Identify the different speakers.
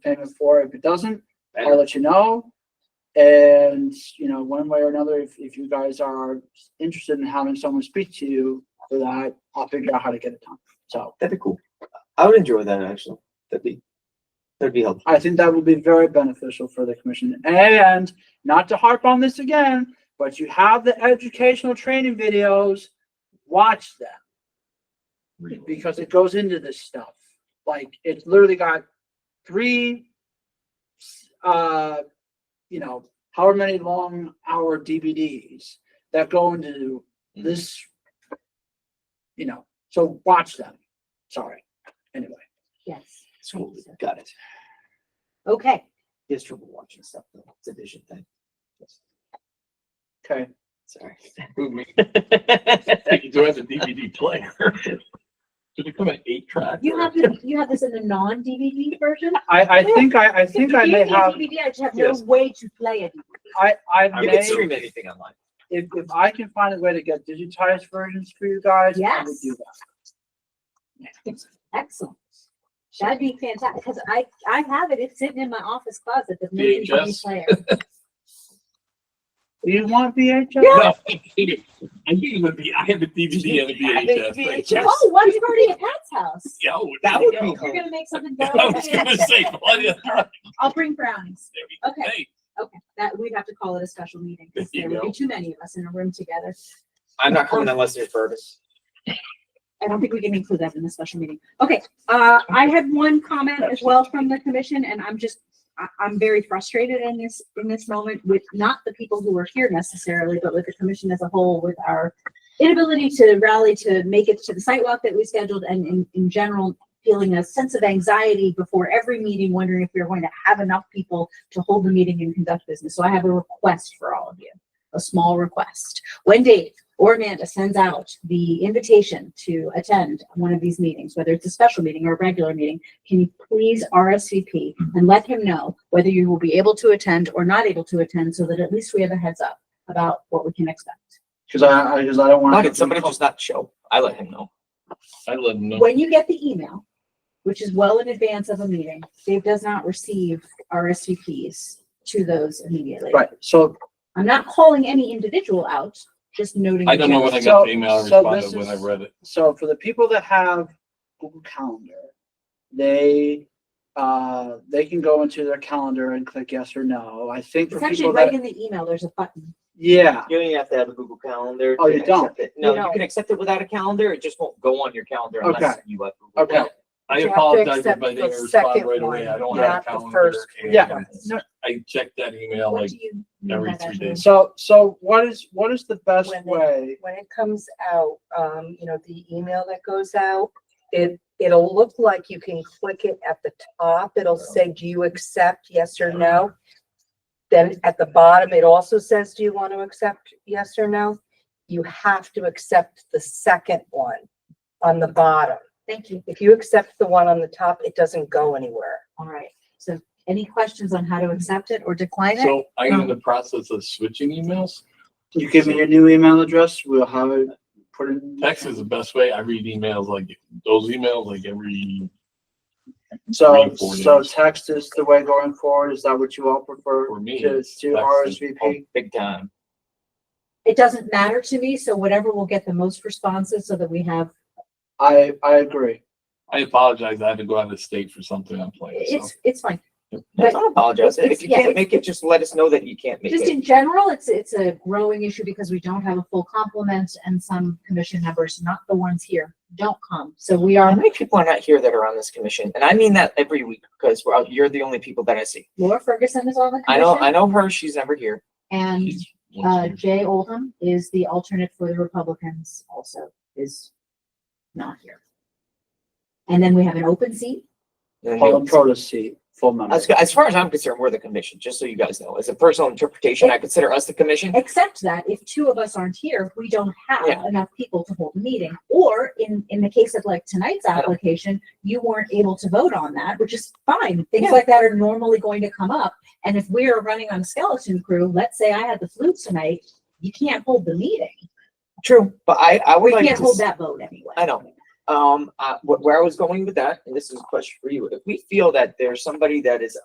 Speaker 1: payment for. If it doesn't, I'll
Speaker 2: And-
Speaker 1: let you know. And, you know, one way or another, if, if you guys are interested in having someone speak to you for that, I'll figure out how to get it done. So
Speaker 3: That'd be cool. I would enjoy that actually. That'd be that'd be helpful.
Speaker 1: I think that will be very beneficial for the commission. And not to harp on this again, but you have the educational training videos, watch them. because it goes into this stuff. Like it's literally got three, uh, you know, however many long hour DVDs that go into this, you know, so watch them. Sorry. Anyway,
Speaker 4: Yes.
Speaker 3: School, got it.
Speaker 4: Okay.
Speaker 3: He has trouble watching stuff though. It's a vision thing.
Speaker 1: okay.
Speaker 3: Sorry.
Speaker 2: Think you have a DVD player. Did it come an eight track?
Speaker 4: You
Speaker 2: or-
Speaker 4: have this, you have this in a non-DVD version?
Speaker 1: I, I think I, I think I may
Speaker 4: If you
Speaker 1: have,
Speaker 4: DVD, I just have no
Speaker 3: Yes.
Speaker 4: way to play it.
Speaker 1: I, I
Speaker 2: I
Speaker 3: You
Speaker 1: may,
Speaker 3: can
Speaker 1: if,
Speaker 3: stream anything online.
Speaker 1: if I can find a way to get digitized versions for you guys, I would
Speaker 4: Yes.
Speaker 1: do that.
Speaker 4: Excellent. That'd be fantastic, because I, I have it, it's sitting in my office closet, the movie
Speaker 2: VHS?
Speaker 4: player.
Speaker 1: Do you want VHS?
Speaker 2: No, I hate it. I hate it would be, I have a DVD and a
Speaker 3: I
Speaker 2: VHS.
Speaker 3: think
Speaker 2: thing.
Speaker 3: Yes.
Speaker 4: Oh, one's already at Pat's house.
Speaker 2: Yeah, I would-
Speaker 3: That would be
Speaker 4: You're
Speaker 3: cool.
Speaker 4: gonna make something
Speaker 2: I was
Speaker 4: better.
Speaker 2: gonna say, bloody hell,
Speaker 4: I'll bring brownies.
Speaker 2: there we go.
Speaker 4: Okay.
Speaker 2: Hey,
Speaker 4: Okay, that, we'd have to call it a special meeting, because
Speaker 2: There you
Speaker 4: there would be
Speaker 2: go.
Speaker 4: too many of us in a room together.
Speaker 3: I'm not coming unless there's Fergus.
Speaker 4: I don't think we can include that in the special meeting. Okay, uh, I had one comment as well from the commission and I'm just, I, I'm very frustrated in this, in this moment with not the people who are here necessarily, but with the commission as a whole, with our inability to rally to make it to the sidewalk that we scheduled and in, in general, feeling a sense of anxiety before every meeting, wondering if we're going to have enough people to hold the meeting and conduct business. So I have a request for all of you, a small request. When Dave or Amanda sends out the invitation to attend one of these meetings, whether it's a special meeting or a regular meeting, can you please RSVP and let him know whether you will be able to attend or not able to attend so that at least we have a heads up about what we can expect.
Speaker 1: Cause I, I, cause I don't want.
Speaker 3: How could somebody just not show? I let him know.
Speaker 2: I let them know.
Speaker 4: When you get the email, which is well in advance of a meeting, Dave does not receive RSVPs to those immediately.
Speaker 1: Right, so
Speaker 4: I'm not calling any individual out, just noting.
Speaker 2: I don't know
Speaker 4: the
Speaker 2: when I
Speaker 1: So-
Speaker 2: got the email
Speaker 1: so this
Speaker 2: responded when I
Speaker 1: is-
Speaker 2: read it.
Speaker 1: So for the people that have Google Calendar, they, uh, they can go into their calendar and click yes or no. I think
Speaker 4: It's
Speaker 1: for
Speaker 4: actually
Speaker 1: people
Speaker 4: right
Speaker 1: that,
Speaker 4: in the email, there's a button.
Speaker 1: yeah,
Speaker 3: You don't even have to have a Google Calendar.
Speaker 1: Oh,
Speaker 3: to
Speaker 1: you don't?
Speaker 3: accept it. No,
Speaker 4: No.
Speaker 3: you can accept it without a calendar. It just won't go on your calendar unless
Speaker 1: Okay.
Speaker 3: you have. Google
Speaker 1: okay.
Speaker 3: Calendar.
Speaker 2: I
Speaker 5: You have to
Speaker 2: apologize if
Speaker 5: accept
Speaker 2: I didn't
Speaker 5: the
Speaker 2: respond
Speaker 5: second
Speaker 2: right away. I
Speaker 5: one,
Speaker 2: don't
Speaker 5: not
Speaker 2: have a
Speaker 5: the
Speaker 2: calendar.
Speaker 5: first
Speaker 2: and
Speaker 1: Yeah. No,
Speaker 2: I checked that email
Speaker 4: What
Speaker 2: like
Speaker 4: do you mean by
Speaker 2: every
Speaker 4: that,
Speaker 2: three
Speaker 4: Amanda?
Speaker 2: days.
Speaker 1: So, so what is, what is the best
Speaker 5: When they-
Speaker 1: way?
Speaker 5: When it comes out, um, you know, the email that goes out, it, it'll look like you can click it at the top. It'll say, do you accept, yes or no? Then at the bottom, it also says, do you want to accept, yes or no? You have to accept the second one on the bottom.
Speaker 4: Thank you.
Speaker 5: If you accept the one on the top, it doesn't go anywhere.
Speaker 4: All right, so any questions on how to accept it or decline it?
Speaker 2: So I'm in the process of switching emails.
Speaker 1: You give me your new email address, we'll have it put in.
Speaker 2: Text is the best way. I read emails like those emails like every,
Speaker 1: So,
Speaker 2: three, four
Speaker 1: so
Speaker 2: days.
Speaker 1: text is the way going forward. Is that what you all prefer?
Speaker 2: For me,
Speaker 1: To,
Speaker 2: it's
Speaker 1: to
Speaker 2: text.
Speaker 3: Oh,
Speaker 1: RSVP?
Speaker 3: Big time.
Speaker 4: It doesn't matter to me, so whatever will get the most responses so that we have,
Speaker 1: I, I agree.
Speaker 2: I apologize. I had to go out of state for something I'm playing. so.
Speaker 4: it's, it's fine.
Speaker 3: Don't
Speaker 4: But
Speaker 3: apologize.
Speaker 4: it's-
Speaker 3: If you
Speaker 4: yeah,
Speaker 3: can't
Speaker 4: it's-
Speaker 3: make it, just let us know that you can't make
Speaker 4: just
Speaker 3: it.
Speaker 4: in general, it's, it's a growing issue because we don't have a full complement and some commission members, not the ones here, don't come. So we
Speaker 3: How
Speaker 4: are,
Speaker 3: many people are not here that are on this commission? And I mean that every week because we're, you're the only people that I see.
Speaker 4: Laura Ferguson is on the
Speaker 3: I know, I
Speaker 4: commission
Speaker 3: know her. She's never here.
Speaker 4: and,
Speaker 2: She's-
Speaker 4: uh, Jay Oldham is the alternate for the Republicans also is not here. And then we have an open seat.
Speaker 3: And then
Speaker 1: Paula
Speaker 3: you-
Speaker 1: Protas seat, full member.
Speaker 3: As, as far as I'm concerned, we're the commission, just so you guys know. As a personal interpretation, I consider us the commission.
Speaker 4: Except that if two of us aren't here, we don't have
Speaker 3: Yeah.
Speaker 4: enough people to hold a meeting. Or in, in the case of like tonight's application, you weren't able to vote on that, which is fine. Things
Speaker 3: Yeah.
Speaker 4: like that are normally going to come up. And if we are running on skeleton crew, let's say I had the flu tonight, you can't hold the meeting.
Speaker 3: True. But I, I
Speaker 4: We
Speaker 3: would like
Speaker 4: can't
Speaker 3: to,
Speaker 4: hold
Speaker 3: s-
Speaker 4: that vote anyway.
Speaker 3: I know. Um, uh, wh- where I was going with that, and this is a question for you, if we feel that there's somebody that is